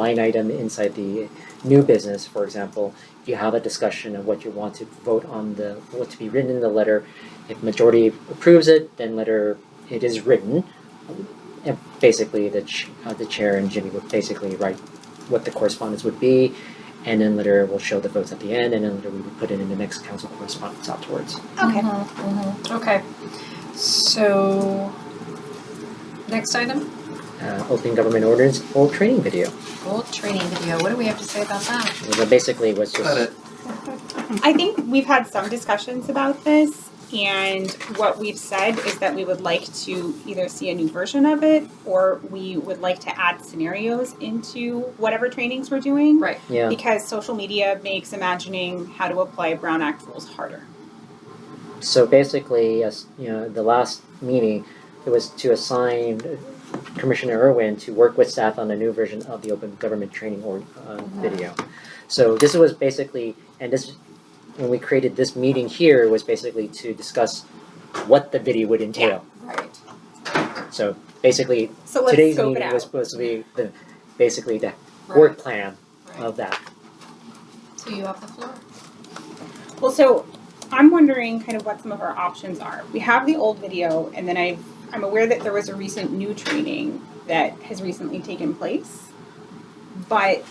line item inside the new business, for example, you have a discussion of what you want to vote on the, what to be written in the letter. If majority approves it, then letter, it is written. And basically, the, ch- uh, the chair and Jimmy would basically write what the correspondence would be, and then letter will show the votes at the end, and then letter we would put it in the next council correspondence afterwards. Okay. Mm-hmm, Okay, so next item, Uh, open government ordinance, old training video. gold training video. What do we have to say about that? So basically, was just. Cut it. I think we've had some discussions about this, and what we've said is that we would like to either see a new version of it or we would like to add scenarios into whatever trainings we're doing. Right. Yeah, Because social media makes imagining how to apply Brown Act rules harder. so basically, as you know, the last meeting, it was to assign Commissioner Irwin to work with staff on a new version of the open government training or, uh, video. So this was basically, and this, when we created this meeting here, was basically to discuss what the video would entail. Right. So basically, So let's today's scope it meeting out. was supposed to be the, basically the Right. work plan Right. of that. So you off the floor? Well, so I'm wondering kind of what some of our options are. We have the old video, and then I I'm aware that there was a recent new training that has recently taken place, but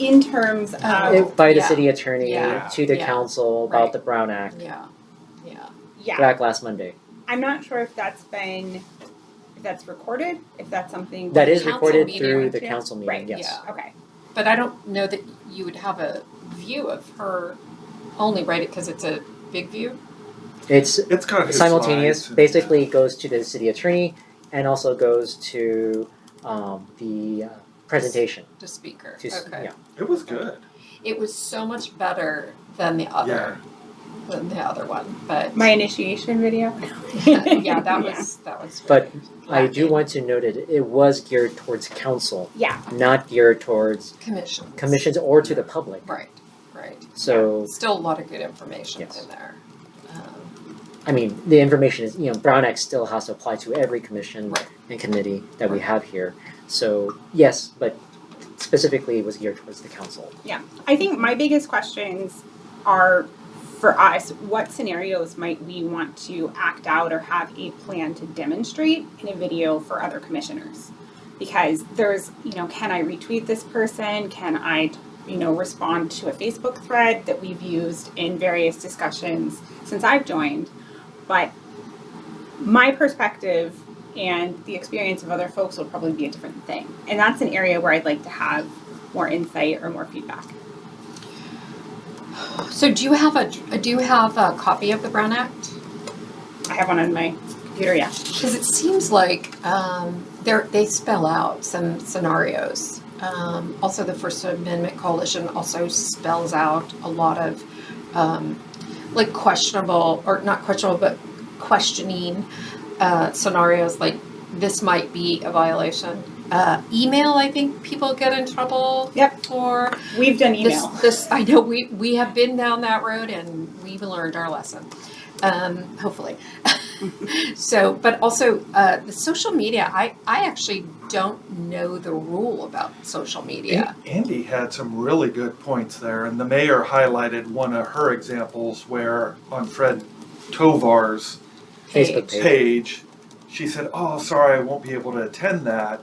in terms Uh, of Oh, By the yeah. city attorney Yeah. to the Yeah. council about Right. the Brown Act Yeah, yeah. yeah, back last Monday. I'm not sure if that's been if that's recorded, if that's something That is Council recorded meeting, through the yeah. council meeting, Right, yes. yeah. okay. But I don't know that you would have a view of her only, right? Because it's a big view. It's It's kind of his simultaneous, slides. basically goes to the city attorney and also goes to um, the uh, presentation. The speaker. To, s- okay. yeah. It was good. It was so much better than the other than the other one, but My initiation video. yeah, that was that was. But pretty I do lacking. want to note it, it was geared towards council, Yeah. not geared towards commissions. commissions or to the public. Right, right. So, Still a lot of good information Yes. in there. Um, I mean, the information is, you know, Brown Act still has to apply to every commission Right. and committee that we have here. So, yes, but specifically it was geared towards the council. I think my biggest questions are for us what scenarios might we want to act out or have a plan to demonstrate in a video for other commissioners? Because there's, you know, can I retweet this person? Can I, you know, respond to a Facebook thread that we've used in various discussions since I've joined? But my perspective and the experience of other folks will probably be a different thing. And that's an area where I'd like to have more insight or more feedback. So do you have a do you have a copy of the Brown Act? I have one on my computer, yeah. Because it seems like um, they they spell out some scenarios. Um, also, the First Amendment Coalition also spells out a lot of um, like questionable or not questionable, but questioning uh, scenarios. Like this might be a violation. Uh, email, I think people get in trouble Yep. for. We've done this, email. this I know we we have been down that road and we've learned our lesson. Um, hopefully. so, but also uh, the social media. I I actually don't know the rule about social media. An- Andy had some really good points there, and the mayor highlighted one of her examples where on Fred Tovar's Facebook page. page, she said, "Oh, sorry, I won't be able to attend that."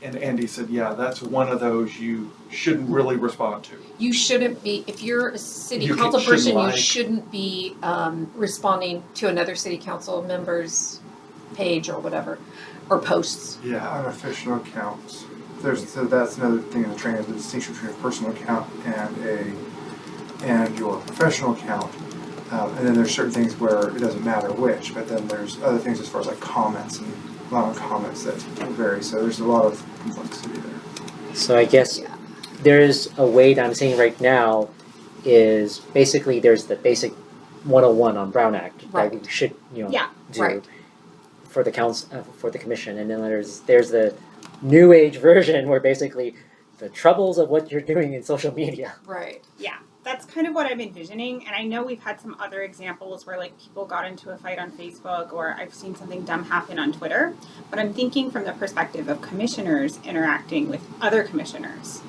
And Andy said, "Yeah, that's one of those you shouldn't really respond to." You shouldn't be if you're a city You can- council shouldn't person. like- You shouldn't be um, responding to another city council member's page or whatever or posts. Yeah. Unofficial accounts. There's so that's another thing in the training is the distinction between a personal account and a and your professional account. Um, and then there's certain things where it doesn't matter which, but then there's other things as far as like comments and allowing comments that vary. So there's a lot of complexity there. So I guess Yeah. there's a way that I'm saying right now is basically there's the basic 101 on Brown Act that we Right. should you know Yeah, do right. for the council uh, for the commission, and then there's there's the new age version where basically the troubles of what you're doing in social media. Right. Yeah. that's kind of what I'm envisioning. And I know we've had some other examples where like people got into a fight on Facebook or I've seen something dumb happen on Twitter. But I'm thinking from the perspective of commissioners interacting with other commissioners.